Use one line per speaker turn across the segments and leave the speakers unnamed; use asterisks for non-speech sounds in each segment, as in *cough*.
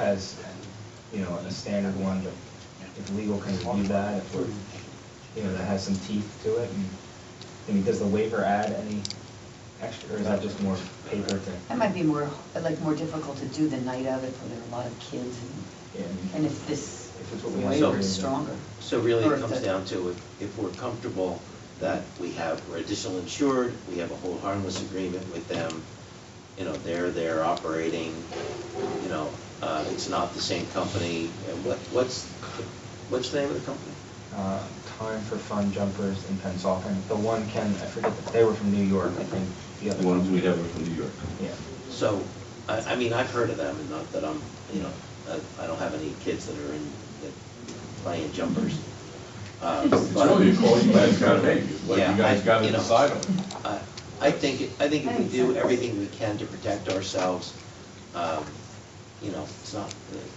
as, you know, a standard one, but if legal can review that, if we're, you know, that has some teeth to it, and, I mean, does the waiver add any extra, or is that just more paper to?
That might be more, like, more difficult to do the night of if there are a lot of kids and,
Yeah, I mean,
and if this
If it's what we have.
waiver is stronger.
So really,
Or
it
if
comes
the-
down to if, if we're comfortable that we have, we're additional insured, we have a whole harmless agreement with them, you know, they're, they're operating, you know, uh, it's not the same company, and what, what's, what's the name of the company?
Uh, Time for fun jumpers in Pennsauken, the one Ken, I forget, that they were from New York, I think, the other.
The ones we have are from New York.
Yeah,
So, I, I mean, I've heard of them, and not that I'm, you know, I, I don't have any kids that are in, that play in jumpers. Uh,
It's
but-
really a *laughs* call you guys gotta make, it's what you
Yeah, I-
guys gotta
you know,
decide on.
I- I think, it- I think if we
That makes
do
sense.
everything we can to protect ourselves, um, you know, it's not,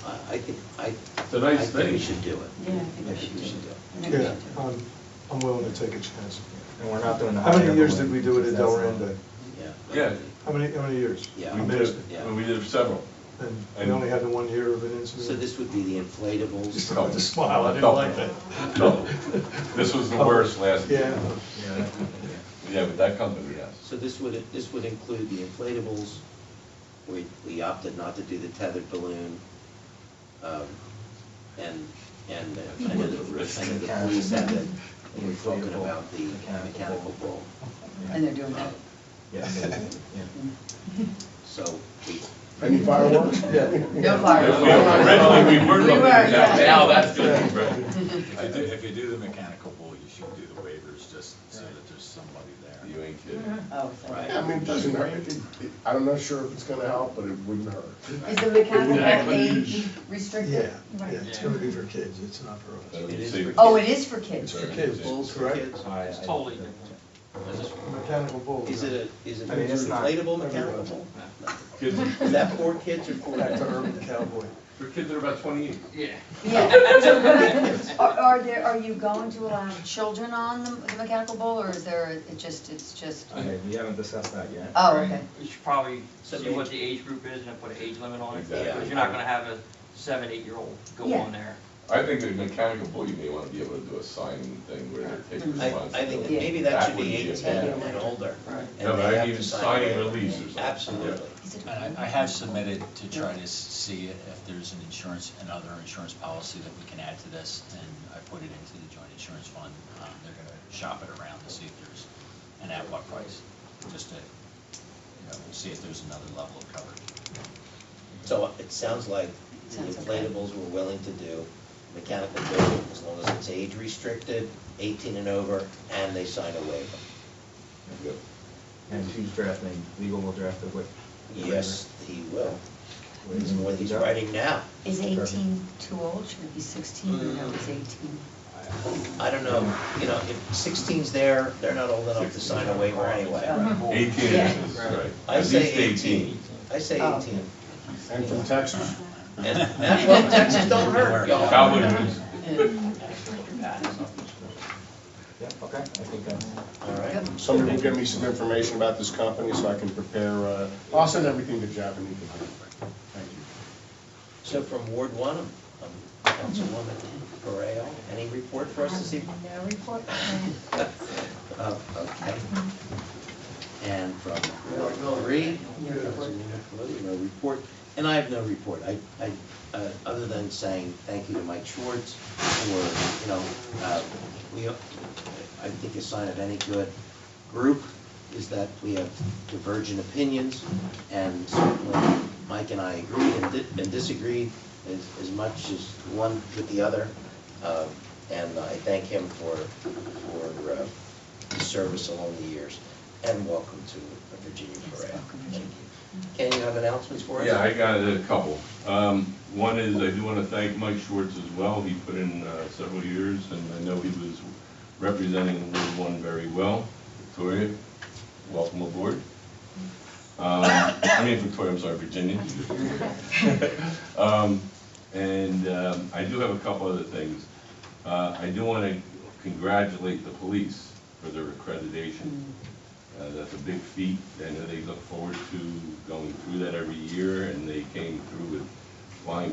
I, I think, I,
It's a nice
I think we
thing.
should do it.
Yeah, I think
I
we should do
should do it.
it. I think we
Yeah,
should do
I'm,
it.
I'm willing to take a chance.
and we're not doing the.
How many
high
years
level
did we
one,
do it
because
at
that's-
Delrinda?
Yeah.
Yeah.
How many, how many years?
Yeah.
We
We
missed
did,
it.
Yeah.
well, we did several.
And we only had the one year of an incident.
So this would be the inflatables.
*laughs* Just about to smile, I didn't
Double.
like that. Oh,
Double. This was the worst last year.
Yeah,
Yeah, yeah.
Yeah, but that company, yes.
So this would, this would include the inflatables. We, we opted not to do the tethered balloon. um, And, and I know the, I know the police had the, they were talking about the mechanical bull.
Yeah.
And they're doing that.
Yeah, so, yeah.
So we,
Any fireworks?
No
Originally, we were
We
looking
were,
at that.
yeah.
Now that's gonna be right.
If you do- if you do the mechanical bull, you should do the waivers just so that there's somebody
You
there.
ain't
Mm-hmm.
kidding.
Oh, sorry.
Right.
I mean, it doesn't hurt. It- it- I'm not sure if it's gonna help, but it wouldn't hurt.
Is the mechanical
Exactly.
age
yeah,
restricted?
yeah, it's gonna be for kids, it's not for
So
us.
It
you
is
see-
for-
Oh, it is for kids.
For kids,
Bulls for
correct?
kids?
I-
It's
I-
totally
Mechanical bull.
Is it a, is it
I mean,
an
it's not-
inflatable mechanical bull?
Kids,
Is that for kids or for
Back to
adults?
urban cowboy.
for kids that are about twenty-eight.
Yeah.
Yeah. *laughs* Are, are there, are you going to allow children on the the mechanical bull, or is there, it just, it's just,
Okay, we haven't discussed that yet.
oh, okay.
You should probably see what the age group is and put an age limit on it,
Exactly.
because you're not gonna have a seven, eight-year-old go
Yeah.
on there.
I think the mechanical bull, you may wanna be able to do a signing thing where they're taking
I,
responsibility.
I think that maybe that should
would
be
a
eight, ten,
bad-
and older.
Right.
and
No,
they
but I
have
mean,
to sign
signing
waiver.
release or something.
Absolutely.
Is it-
And I I have submitted to try to s- see if there's an insurance, another insurance policy that we can add to this, and I put it into the joint insurance fund. Um, They're going to shop it around to see if there's, and at what price, just to, you know, see if there's another level of coverage.
So it sounds like the
Sounds okay.
inflatables we're willing to do, mechanical bull, as long as it's age restricted, eighteen and over, and they sign a waiver.
Yep.
And who's drafting, legal will draft the whip.
Yes, he will.
Whatever.
It's
Mm-hmm.
what he's writing now.
Is eighteen too old, should it be sixteen, or no, it's eighteen?
I don't know, you know, if 16's there, they're not old enough to sign a waiver anyway.
Oh,
Eighteen
Yeah.
is, right.
I
At
say
least
eighteen. I say
Oh.
eighteen.
And from Texas.
And, and, well, Texas don't hurt,
*laughs*
y'all.
Cowboy boots.
Yeah, okay, I think uh, that's,
All right.
Somebody will give me some information about this company so I can prepare, uh, I'll send everything to Jeff and he can handle it. Thank you.
So from Ward One, um, um, Councilwoman Correa, any report for us this evening?
No report.
Oh, okay. And from Ward Three, Councilwoman Caluti, no report. And I have no report. I, I, uh, other than saying thank you to Mike Schwartz for, you know, uh, we, I think a sign of any good group is that we have divergent opinions, and certainly Mike and I agree and di- and disagree as, as much as one with the other. Uh, And I thank him for, for uh, his service along the years, and welcome to Virginia Parade. Thank you. Ken, you have announcements for us?
Yeah, I got a couple. Um, One is, I do want to thank Mike Schwartz as well. He put in uh, several years, and I know he was representing Ward One very well. Victoria, welcome aboard. Um, I mean, Victoria, I'm sorry, Virginia. *laughs* Um, And um, I do have a couple other things. Uh, I do want to congratulate the police for their accreditation. Uh, That's a big feat. I know they look forward to going through that every year, and they came through with flying